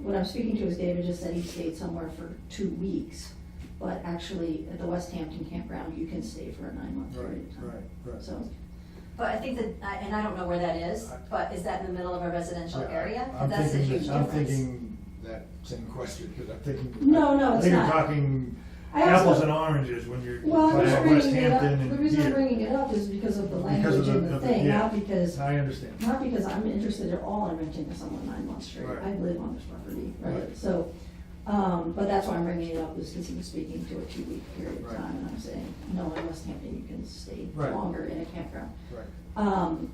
when I was speaking to his, David just said he stayed somewhere for two weeks, but actually, at the West Hampton campground, you can stay for a nine-month Right, period of time. right, right. So, But I think that, I- and I don't know where that is, but is that in the middle of a residential I- I- area? I'm That's a thinking huge that- I'm difference. thinking that same question, because I'm thinking. No, no, I it's think not. you're talking I also- apples and oranges when you're well, I'm talking just about West bringing it up, Hampton the and reason I'm here. bringing it up is because of the Because of language and the- the of the- thing, yeah. not because, I understand. not because I'm interested at all in renting to someone nine months straight. Right. I live on this property, Right. right? So, um, but that's why I'm bringing it up, is because he was speaking to a two-week period of Right. time, and I'm saying, no, in West Hampton, you can stay Right. longer in a campground. Right. Um,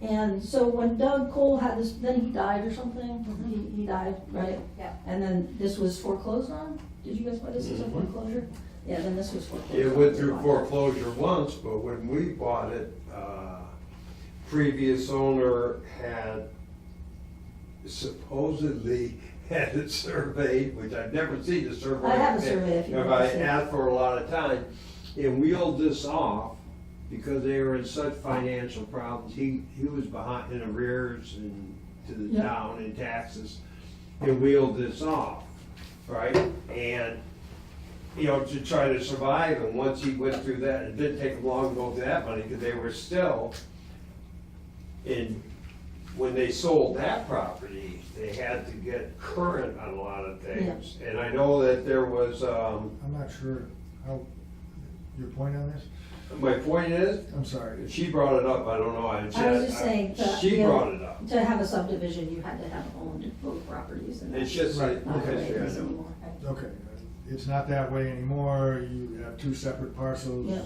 and so when Doug Cole had this, then he died or something, he, he died, right? Yeah. And then this was foreclosed on? Did you guys buy this as a Mhm. foreclosure? Yeah, then this was foreclosed. It on. went through foreclosure once, but when we bought it, uh, previous owner had supposedly had it surveyed, which I've never seen a survey. I have a survey if you If want I to see it. asked for a lot of time, and wheeled this off because they were in such financial problems. He, he was behind in arrears and to the Yeah. town in taxes, and wheeled this off, right? And you know, to try to survive, and once he went through that, it didn't take him long to go through that money, because they were still in, when they sold that property, they had to get current on a lot of things. And I know that there was, um, I'm not sure how, your point on this? my point is, I'm sorry. she brought it up, I don't know, I just. I was just saying that, She you know, brought it up, To have a subdivision, you had to have owned both properties and it's that's just, Right. not the way okay, it yeah, I is know. anymore. Okay, it's not that way anymore. You have two separate parcels. Yeah.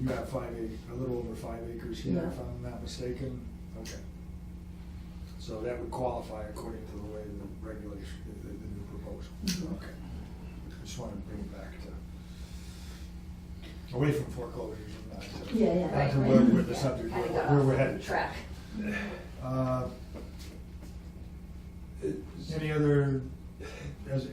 You have five, ac- a little over five acres here, Yeah. if I'm not mistaken. Okay. So that would qualify according to the way the regulation, the, the new proposal. Mhm. Okay. I just wanted to bring it back to, away from foreclosures and not to. Yeah, yeah, Not right, to where, right. where the Yeah, subject, kinda got where off we're headed. Track. Uh, It's- Any other, as, as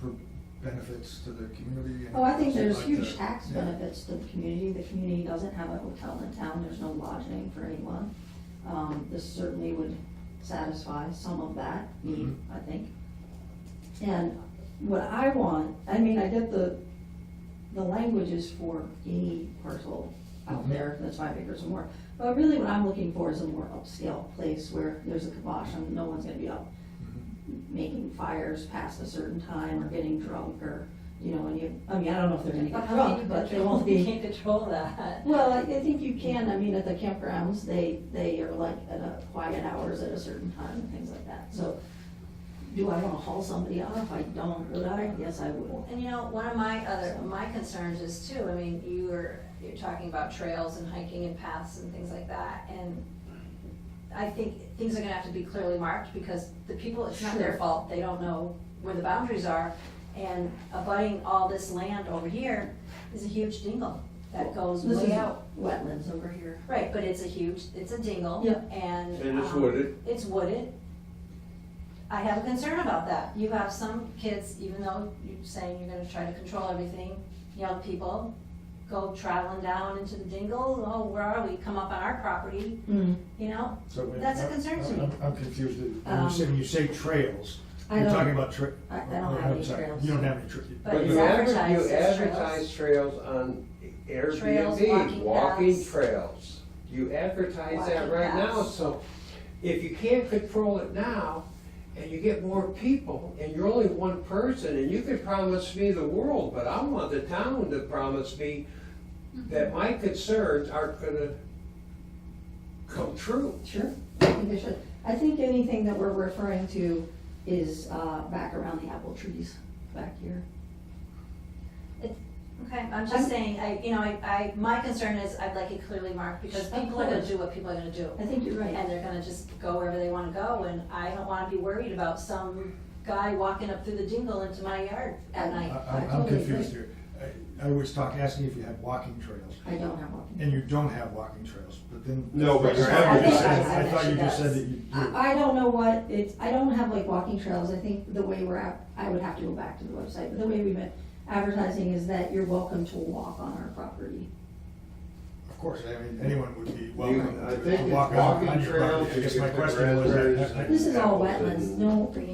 per- benefits to the community? Oh, I think there's Like huge the- tax yeah. benefits to the community. The community doesn't have a hotel in town, there's no lodging for anyone. Um, this certainly would satisfy some of that need, Mhm. I think. And what I want, I mean, I get the, the language is for any parcel out Mhm. there that's five acres or more. But really what I'm looking for is a more upscale place where there's a kibosh and no one's gonna be out Mhm. making fires past a certain time or getting drunk or, you know, and you, I mean, I don't know if they're gonna But get how can drunk, you but they control, won't you be. can't control that. Well, I, I think you can, I mean, at the campgrounds, they, they are like at a quiet hours at a certain time and things like that, so. Do I wanna haul somebody out if I don't, would I? Yes, I would. And you know, one of my other, my concerns is too, I mean, you were, you're talking about trails and hiking and paths and things like that, and I think things are gonna have to be clearly marked, because the people, it's not their Sure. fault, they don't know where the boundaries are, and abutting all this land over here is a huge dingle that goes This way is out. Wetlands over here. Right, but it's a huge, it's a dingle, Yeah. and. And it's um, wooded. It's wooded. I have a concern about that. You have some kids, even though you're saying you're gonna try to control everything, young people go traveling down into the dingle, oh, where are we? Come up on our property, Mm-hmm. you know? So when- That's a concern to me. I'm- I'm confused. When you Um, say, when you say trails, I you're don't- talking about tra- I- I don't oh, have I'm any sorry. trails. You don't have any trails. But But it's you advertised advertise, you as trails. advertise trails on Trails, Airbnb, walking walking paths. trails. You advertise that Walking right now, paths. so if you can't control it now, and you get more people, and you're only one person, and you could promise me the world, but I want the town to promise me Mm-hmm. that my concerns aren't gonna come true. Sure, I think they should. I think anything that we're referring to is, uh, back around the apple trees back here. Okay, I'm I'm- just saying, I, you know, I, I, my concern is I'd like it clearly marked, because Of people are gonna course. do what people are gonna do. I think you're right. and they're gonna just go wherever they wanna go, and I don't wanna be worried about some guy walking up through the dingle into my yard at I- night. I'm I'm totally agree. confused here. I I was talking, asking if you had walking trails, I don't have one. and you don't have walking trails, but then. No, but you're I thought you advertising. just said- I I thought you just said bet she that you do. I, I don't know what, it's, I don't have like walking trails, I think the way we're at, I would have to go back to the website, but the way we've been advertising is that you're welcome to walk on our property. Of course, I mean, anyone would be welcome I to think to walk it's on walking on your property. trails, I guess you my get the question was. uh, I- I- raspberries. I- This is all Apples wetlands, and- no